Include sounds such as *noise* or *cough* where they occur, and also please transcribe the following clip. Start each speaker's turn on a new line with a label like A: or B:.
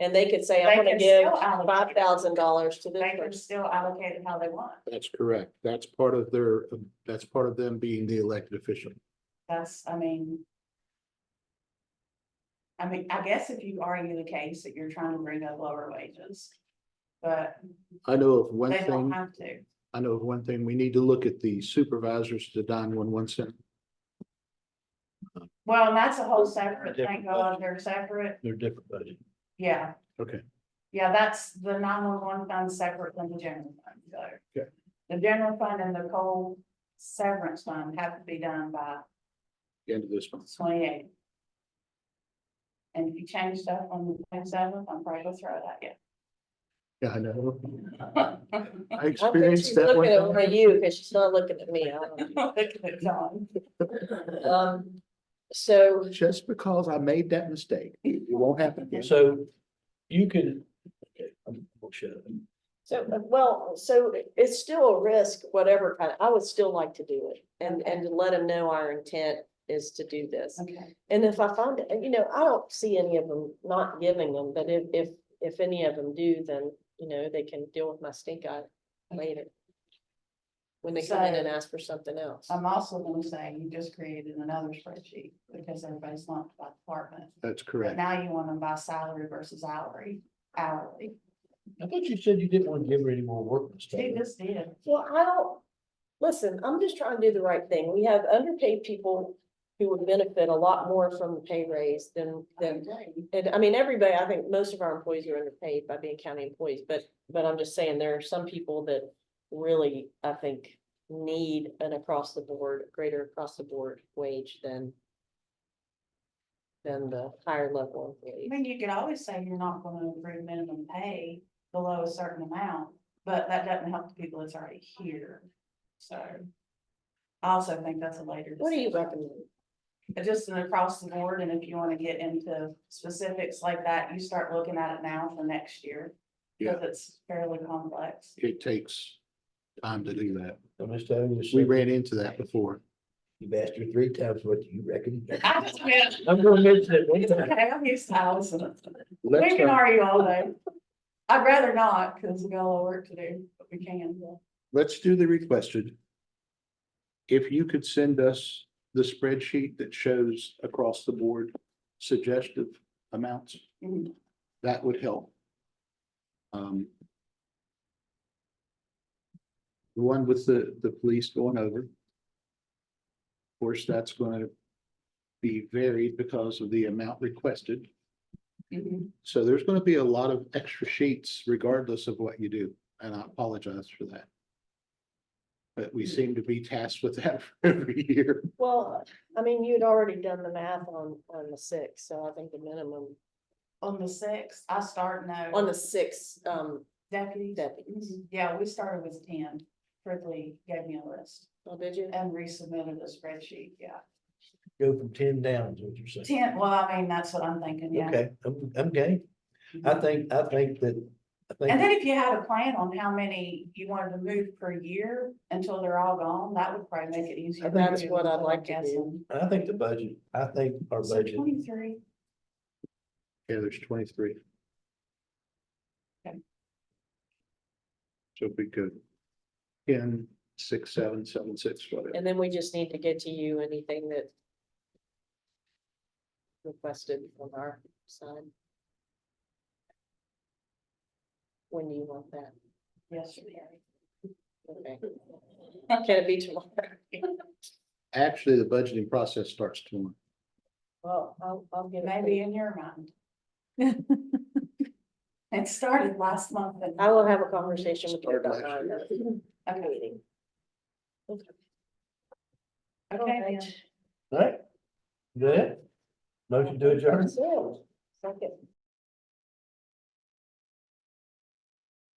A: And they could say,
B: They
A: I'm gonna
B: can
A: give
B: still allocate
A: five
B: it.
A: thousand dollars to this
B: They can
A: person.
B: still allocate it how they want.
C: That's correct. That's part of their, that's part of them being the elected official.
B: That's, I mean. I mean, I guess if you argue the case that you're trying to bring up lower wages. But
C: I know of one
B: they don't
C: thing,
B: have to.
C: I know of one thing, we need to look at the supervisors to nine one one center.
B: Well, and that's a whole separate thing
C: Different
B: going, they're separate,
C: They're different budget.
B: yeah.
C: Okay.
B: Yeah, that's the nine one one fund separate than the general fund, so.
C: Okay.
B: The general fund and the coal severance fund have to be done by
C: End of this month.
B: twenty eight. And if you change stuff on the twenty seventh, I'm probably gonna throw it at you.
C: Yeah,
B: *laughs*
C: I know. I
A: I think she's
C: experienced that one
A: looking
C: time.
A: over you because she's not looking at me. I don't
B: Look at John. *laughs*
A: know. Um, so
C: Just because I made that mistake, it won't happen again.
D: So you could. okay, I'm gonna shut up.
A: So, uh, well, so it's still a risk, whatever kind, I would still like to do it and, and to let them know our intent is to do this.
B: Okay,
A: And if I find, it, and, you know, I don't see any of them not giving them, but if, if, if any of them do, then, you know, they can deal with my stink eye later. When they come in and ask for something else.
B: I'm also gonna say you just created another spreadsheet because everybody's lumped by department.
C: That's
B: But
C: correct.
B: now you want them by salary versus hourly, hourly.
D: I thought you said you didn't want to give her any more work. Ms.
B: She
D: Taylor.
B: just did.
A: Well, I don't, listen, I'm just trying to do the right thing. We have underpaid people who would benefit a lot more from the pay raise than, than And I mean, everybody, I think most of our employees are underpaid by being county employees, but, but I'm just saying there are some people that really, I think, need an across the board, greater across the board wage than than the higher level
B: I
A: employee.
B: mean, you could always say you're not gonna approve minimum pay below a certain amount, but that doesn't help the people that's already here, so. I also think that's a later.
A: What do you
B: discussion.
A: recommend?
B: But just an across the board, and if you wanna get into specifics like that, you start looking at it now for next year. Cause it's fairly complex.
C: It takes time to do that.
D: So, Ms. Taylor, you
C: We
D: said
C: ran into that before.
D: You've asked her three times, what do you
B: *laughs*
D: reckon?
B: I just meant,
D: I'm gonna mention it one time.
B: okay, I'm used to Allison. We
C: Let's,
B: can
C: uh,
B: argue all day. I'd rather not, cause we got a lot of work to do, but we can.
C: let's do the requested. If you could send us the spreadsheet that shows across the board suggestive amounts,
B: Mhm.
C: that would help. Um. The one with the, the police going over. Of course, that's going to be varied because of the amount requested.
B: Mhm.
C: So there's gonna be a lot of extra sheets regardless of what you do, and I apologize for that. But we seem to be tasked with that *laughs* every year.
A: Well, I mean, you'd already done the math on, on the six, so I think the minimum,
B: On the sixth, I start now.
A: on the six, um,
B: deputies.
A: deputies.
B: Mhm. Yeah, we started with ten. Prickly gave me a list
A: Oh, did you?
B: and resubmitted a spreadsheet, yeah.
D: Go from ten down is what you're saying.
B: Ten, well, I mean, that's what I'm thinking, yeah.
D: Okay, I'm, I'm game. I think, I think that, I
B: And
D: think,
B: then if you had a plan on how many you wanted to move per year until they're all gone, that would probably make it easier.
A: That's
B: for you
A: what I'd
B: instead of
A: like to do.
B: guessing.
D: I think the budget, I think our
B: So
D: budget,
B: twenty-three.
C: Yeah, there's twenty-three.
B: Okay.
C: So if we could, ten, six, seven, seven, six, whatever.
A: And then we just need to get to you anything that requested from our side. When do you want that?
B: Yesterday.
A: Okay. Can it be tomorrow?
C: Actually, the budgeting process starts tomorrow.
A: Well, I'll, I'll get.
B: It
A: it
B: may
A: to
B: be
A: you.
B: in your mind. *laughs* It started last month and.
A: I will have a conversation with you
C: Started
A: about
C: last year.
A: that.
B: Okay,
A: Meeting.
B: Okay,
A: Alright.
B: then.
D: right? Good. Motion to adjourn.
A: So, Second.